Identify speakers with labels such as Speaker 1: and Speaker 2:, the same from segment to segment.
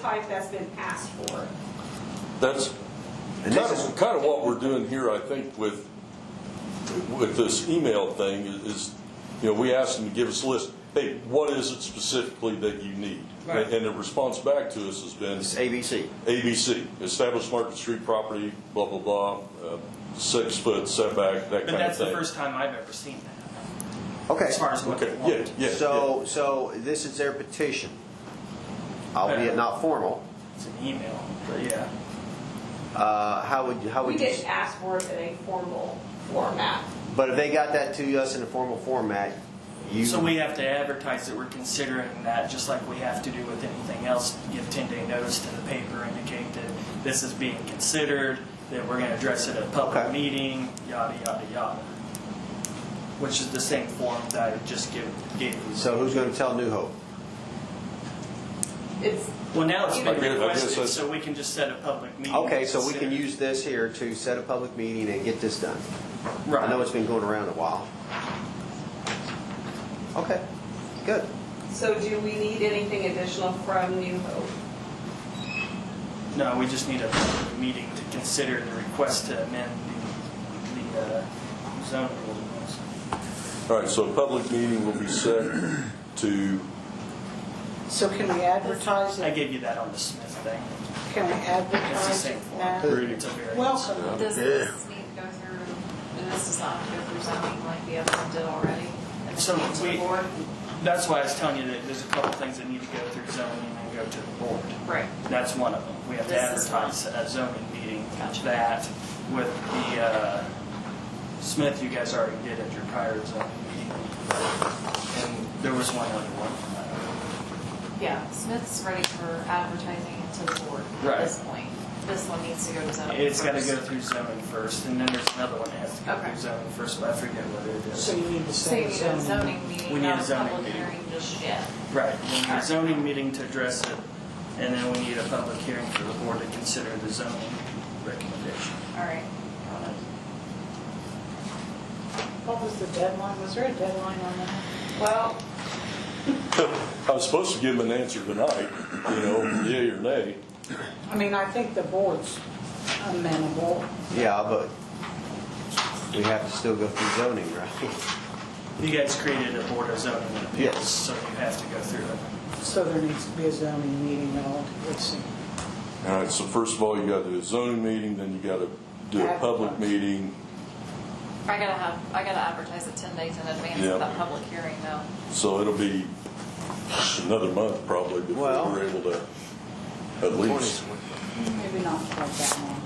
Speaker 1: type that's been asked for.
Speaker 2: That's
Speaker 3: And
Speaker 2: kind
Speaker 3: this is,
Speaker 2: of, kind of what we're doing here, I think, with, with this email thing is, you know, we asked them to give us a list. Hey, what is it specifically that you need?
Speaker 1: Right.
Speaker 2: And the response back to us has been
Speaker 3: it's ABC.
Speaker 2: ABC, established Market Street property, blah, blah, blah, uh, six foot setback, that kind of thing.
Speaker 4: But that's the first time I've ever seen that,
Speaker 3: Okay.
Speaker 4: as far as what they
Speaker 2: Okay, yeah,
Speaker 4: want.
Speaker 2: yeah.
Speaker 3: So, so this is their petition, albeit not formal.
Speaker 4: It's an email, but yeah.
Speaker 3: Uh, How would, you- how
Speaker 1: We
Speaker 3: would you,
Speaker 1: didn't ask for it in a formal format.
Speaker 3: but if they got that to us in a formal format, you,
Speaker 4: So we have to advertise that we're considering that, just like we have to do with anything else. Give ten-day notice to the paper, indicate that this is being considered, that we're gonna address it at a public
Speaker 3: Okay.
Speaker 4: meeting, yada, yada, yada. Which is the same form that I just give, gave you.
Speaker 3: so who's going to tell New Hope?
Speaker 1: It's,
Speaker 4: Well, now it's
Speaker 1: I
Speaker 4: been
Speaker 2: guess- I guess
Speaker 4: requested,
Speaker 2: that's-
Speaker 4: so we can just set a public meeting.
Speaker 3: Okay,
Speaker 4: to
Speaker 3: so we can
Speaker 4: consider.
Speaker 3: use this here to set a public meeting and get this done. I know
Speaker 4: Right,
Speaker 3: it's been going around a while. Okay, good.
Speaker 1: so do we need anything additional from New Hope?
Speaker 4: no, we just need a public meeting to consider the request to amend the, the uh, zoning ordinance.
Speaker 2: All right, so a public meeting will be set to,
Speaker 5: So can we advertise
Speaker 4: I
Speaker 5: it?
Speaker 4: gave you that on the Smith thing.
Speaker 5: Can we
Speaker 4: It's the
Speaker 5: advertise
Speaker 4: same
Speaker 5: it
Speaker 4: form.
Speaker 5: now?
Speaker 4: It's a variance.
Speaker 5: Welcome.
Speaker 6: Does this need to go through, and this does not go through zoning like the other one did already? And
Speaker 4: So
Speaker 6: then came to the
Speaker 4: we-
Speaker 6: board?
Speaker 4: That's why I was telling you that there's a couple things that need to go through zoning and then go to the board.
Speaker 6: Right.
Speaker 4: That's one of them. We have to
Speaker 6: This is one.
Speaker 4: advertise a zoning meeting
Speaker 6: Gotcha.
Speaker 4: that with the, uh, Smith, you guys already did at your prior zoning meeting. And there was one other one.
Speaker 6: Yeah, Smith's ready for advertising it to the board
Speaker 4: Right.
Speaker 6: at this point. This one needs to go to zoning.
Speaker 4: It's gotta
Speaker 6: first.
Speaker 4: go through zoning first, and then there's another one that has to go
Speaker 6: Okay.
Speaker 4: through zoning first, but I forget what it is.
Speaker 5: So you need to
Speaker 6: So you
Speaker 5: send
Speaker 6: need a
Speaker 5: some.
Speaker 6: zoning
Speaker 4: We
Speaker 6: meeting,
Speaker 4: need a
Speaker 6: not a
Speaker 4: zoning
Speaker 6: public
Speaker 4: meeting.
Speaker 6: hearing just yet.
Speaker 4: Right, we need a zoning meeting to address it, and then we need a public hearing for the board to consider the zoning recommendation.
Speaker 6: All right. Got it.
Speaker 5: What was the deadline? Was there a deadline on that?
Speaker 1: Well,
Speaker 2: I was supposed to give them an answer tonight, you know, yea or nay.
Speaker 5: I mean, I think the board's amenable.
Speaker 3: Yeah, but we have to still go through zoning, right?
Speaker 4: You guys created a board of zoning and appeals,
Speaker 3: Yes.
Speaker 4: so you have to go through it.
Speaker 5: So there needs to be a zoning meeting relative
Speaker 2: All right, so first of all, you gotta do a zoning meeting, then you gotta do a public meeting.
Speaker 6: I gotta have, I gotta advertise it 10 days in advance
Speaker 2: Yeah.
Speaker 6: of that public hearing though.
Speaker 2: So it'll be another month probably before
Speaker 3: Well-
Speaker 2: we're able to, at least.
Speaker 5: Maybe not quite that long.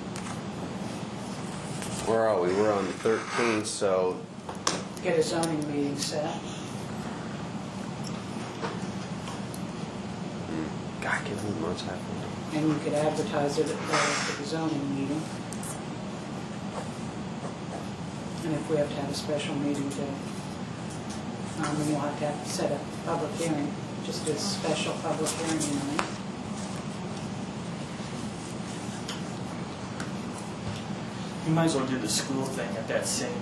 Speaker 3: Where are we? We're on the 13th, so
Speaker 5: Get a zoning meeting set.
Speaker 3: God, I can't believe months happened.
Speaker 5: And you could advertise it at the zoning meeting. And if we have to have a special meeting to, um, then we'll have to have- set a public hearing, just a special public hearing, you know.
Speaker 4: You might as well do the school thing at that same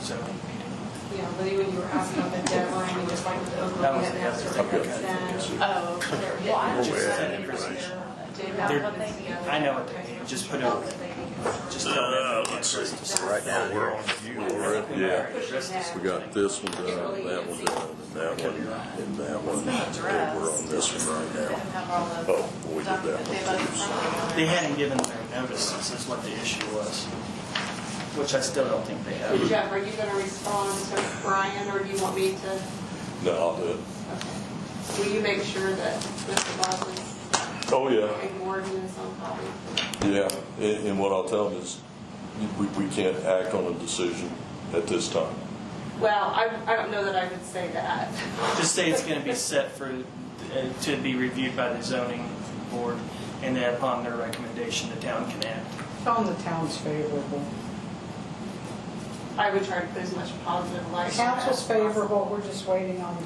Speaker 4: zoning meeting.
Speaker 1: you know, Lee, when you were asking about the deadline, you just like the
Speaker 4: That
Speaker 1: overlooking
Speaker 4: was
Speaker 1: it
Speaker 4: the
Speaker 1: and
Speaker 4: other
Speaker 1: sort of
Speaker 4: thing.
Speaker 1: consent.
Speaker 6: Oh, they're getting.
Speaker 4: Just
Speaker 6: just
Speaker 4: set
Speaker 6: getting
Speaker 4: it right.
Speaker 6: their- Do that
Speaker 4: They're-
Speaker 6: what they need.
Speaker 4: I know what they need, just put
Speaker 6: Oh,
Speaker 4: it, just tell them. Let's see.
Speaker 3: Right now, we're on.
Speaker 2: Yeah.
Speaker 4: Yeah.
Speaker 2: We got this one done, that one done, and that one, and that one. And We're on this one right
Speaker 6: They
Speaker 2: now.
Speaker 6: have all the
Speaker 2: Oh, we did that
Speaker 6: document-
Speaker 2: one
Speaker 6: they voted for it.
Speaker 4: They hadn't given their notice, this is what the issue was, which I still don't think they have.
Speaker 1: Jeff, are you going to respond to Brian, or do you want me to?
Speaker 2: No, I'll do it.
Speaker 1: Okay. Will you make sure that Mr. Baldwin's
Speaker 2: Oh, yeah.
Speaker 1: and Gordon is on copy?
Speaker 2: Yeah, and, and what I'll tell them is, we, we can't act on a decision at this time.
Speaker 1: Well, I, I don't know that I would say that.
Speaker 4: Just say it's gonna be set for, uh, to be reviewed by the zoning board, and then upon their recommendation, the town can act.
Speaker 5: Tell them the town's favorable.
Speaker 1: I would try to put as much positive light. on it
Speaker 5: Council's
Speaker 1: as possible.
Speaker 5: favorable, we're just waiting on,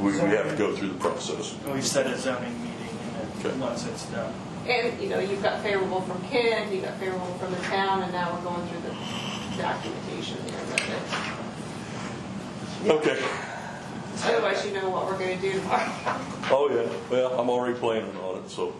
Speaker 2: We, we have to go through the process.
Speaker 4: We've set a zoning meeting, and
Speaker 2: Okay.
Speaker 4: then once it's done,
Speaker 1: And, you know, you've got favorable from Ken, you got favorable from the town, and now we're going through the documentation here. but uh, it's-
Speaker 2: Okay.
Speaker 1: Otherwise, you know what we're going to do tomorrow.
Speaker 2: Oh, yeah, well, I'm already planning on it, so.